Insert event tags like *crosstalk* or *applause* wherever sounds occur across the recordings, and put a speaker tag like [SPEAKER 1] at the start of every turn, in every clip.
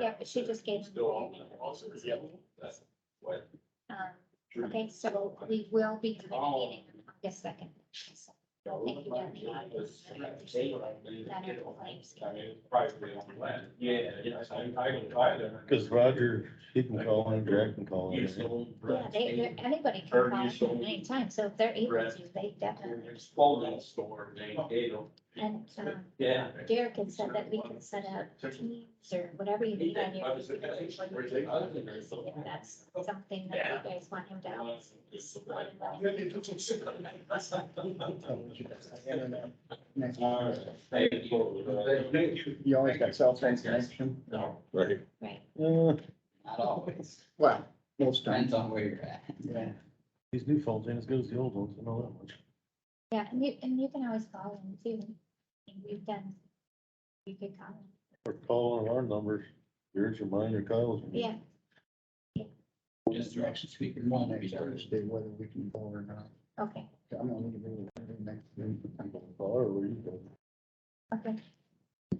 [SPEAKER 1] yeah, but she just gave.
[SPEAKER 2] Still on, also, yeah, that's what.
[SPEAKER 1] Um, Okay, so we will be convening on August second. Thank you, Jeremy.
[SPEAKER 2] I mean, privately owned land. Yeah. Yes, I, I can buy them.
[SPEAKER 3] Cause Roger, he can call in, Jack can call
[SPEAKER 2] You
[SPEAKER 3] in.
[SPEAKER 2] sold
[SPEAKER 1] Yeah,
[SPEAKER 2] Brett's
[SPEAKER 1] they, they're- anybody can call in anytime, so if they're able to, they definitely.
[SPEAKER 2] Exploding store, they, they don't.
[SPEAKER 1] And, um,
[SPEAKER 2] Yeah.
[SPEAKER 1] Derek had said that we can set up teams or whatever you need on your.
[SPEAKER 2] oh,
[SPEAKER 1] If that's something that you guys want him to help. us let him know.
[SPEAKER 4] You always got cell phone connection?
[SPEAKER 2] No,
[SPEAKER 3] Right.
[SPEAKER 1] Right.
[SPEAKER 3] Uh,
[SPEAKER 5] Not always.
[SPEAKER 4] Well, most times,
[SPEAKER 5] Depends on where you're at.
[SPEAKER 4] yeah.
[SPEAKER 3] these new phones ain't as good as the old ones, I know that much.
[SPEAKER 1] Yeah, and you, and you can always call in too. And we've done, you could call in.
[SPEAKER 3] Or call on our numbers, yours or mine or Kyle's.
[SPEAKER 1] Yeah,
[SPEAKER 5] Just direction speaker. won't be
[SPEAKER 4] Next
[SPEAKER 5] done.
[SPEAKER 4] Thursday, whether we can go or not.
[SPEAKER 1] okay,
[SPEAKER 4] I'm gonna leave it there next week.
[SPEAKER 3] Or where you go.
[SPEAKER 1] okay.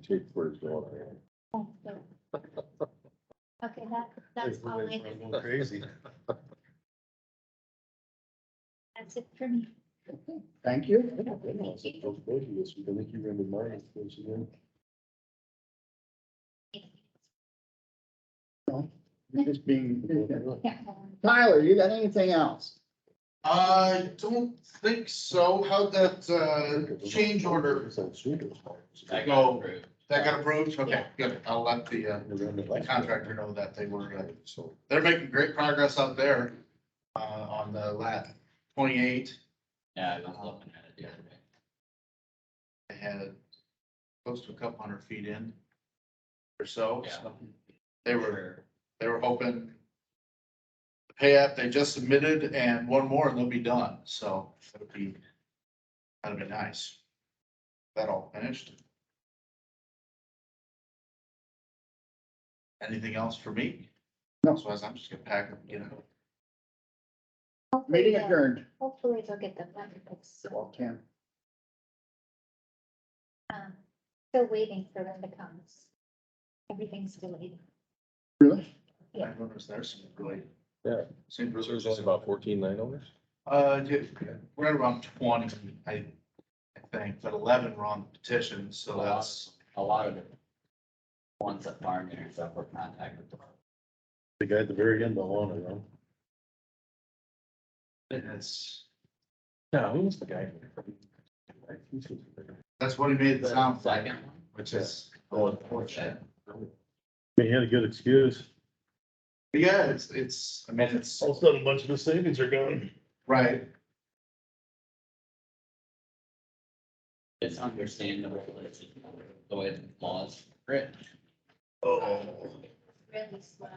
[SPEAKER 3] Take where it's going.
[SPEAKER 1] Thanks, Derek. Okay, that, that's all I have.
[SPEAKER 3] Going *laughs* Crazy.
[SPEAKER 1] That's it for me.
[SPEAKER 4] Thank you.
[SPEAKER 1] Thank you.
[SPEAKER 3] I think you remember mine, don't you, Jim?
[SPEAKER 4] You're Just being,
[SPEAKER 1] Yeah, um,
[SPEAKER 4] Tyler, you got anything else?
[SPEAKER 6] I don't think so. How'd that, uh, change order,
[SPEAKER 5] That
[SPEAKER 3] Contractor.
[SPEAKER 5] got approved.
[SPEAKER 6] that got approved? Okay, good. I'll let the, uh, the contractor know that they were, uh, so they're making great progress out there. Uh, on the lat twenty-eight,
[SPEAKER 5] Yeah, I was looking at it the other day.
[SPEAKER 6] they had close to a couple hundred feet in or so. so They were,
[SPEAKER 5] Sure.
[SPEAKER 6] they were hoping the pay app they just submitted and one more and they'll be done. So that would be, that'd be nice. That all finished. Anything else for me?
[SPEAKER 4] No.
[SPEAKER 6] Otherwise, I'm just gonna pack up, you know.
[SPEAKER 1] hopefully
[SPEAKER 4] Meeting
[SPEAKER 1] they'll-
[SPEAKER 4] adjourned.
[SPEAKER 1] Hopefully they'll get the money fixed soon.
[SPEAKER 4] Well, Ken,
[SPEAKER 1] Um, Still waiting for them to come. Everything's delayed.
[SPEAKER 4] Really?
[SPEAKER 1] Yeah.
[SPEAKER 6] I noticed there's some really.
[SPEAKER 3] Yeah.
[SPEAKER 6] Seems
[SPEAKER 3] There's
[SPEAKER 6] really.
[SPEAKER 3] only about fourteen landowners?
[SPEAKER 6] Uh, yeah, right around twenty, I, I think, but eleven were on the petition,
[SPEAKER 5] A
[SPEAKER 6] so
[SPEAKER 5] lot,
[SPEAKER 6] that's,
[SPEAKER 5] a lot of the ones that farm there and stuff were contacted.
[SPEAKER 3] The guy at the very end, I want to know.
[SPEAKER 6] that's,
[SPEAKER 3] No, who was the guy?
[SPEAKER 6] that's what he made the sound like,
[SPEAKER 5] Second one.
[SPEAKER 6] which is
[SPEAKER 3] Oh,
[SPEAKER 6] unfortunate.
[SPEAKER 3] He had a good excuse.
[SPEAKER 6] But Yeah, it's, it's, I mean, it's,
[SPEAKER 3] of a sudden, a bunch of the savings are gone.
[SPEAKER 6] right,
[SPEAKER 5] It's understandable, it's the way the laws written.
[SPEAKER 6] oh,
[SPEAKER 1] Really slow.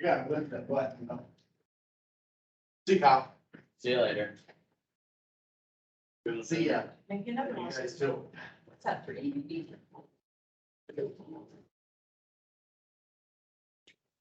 [SPEAKER 6] yeah, with that, but, you know. See how,
[SPEAKER 5] See you later.
[SPEAKER 6] see ya.
[SPEAKER 7] Make another one.
[SPEAKER 6] You guys too.
[SPEAKER 7] It's up for you.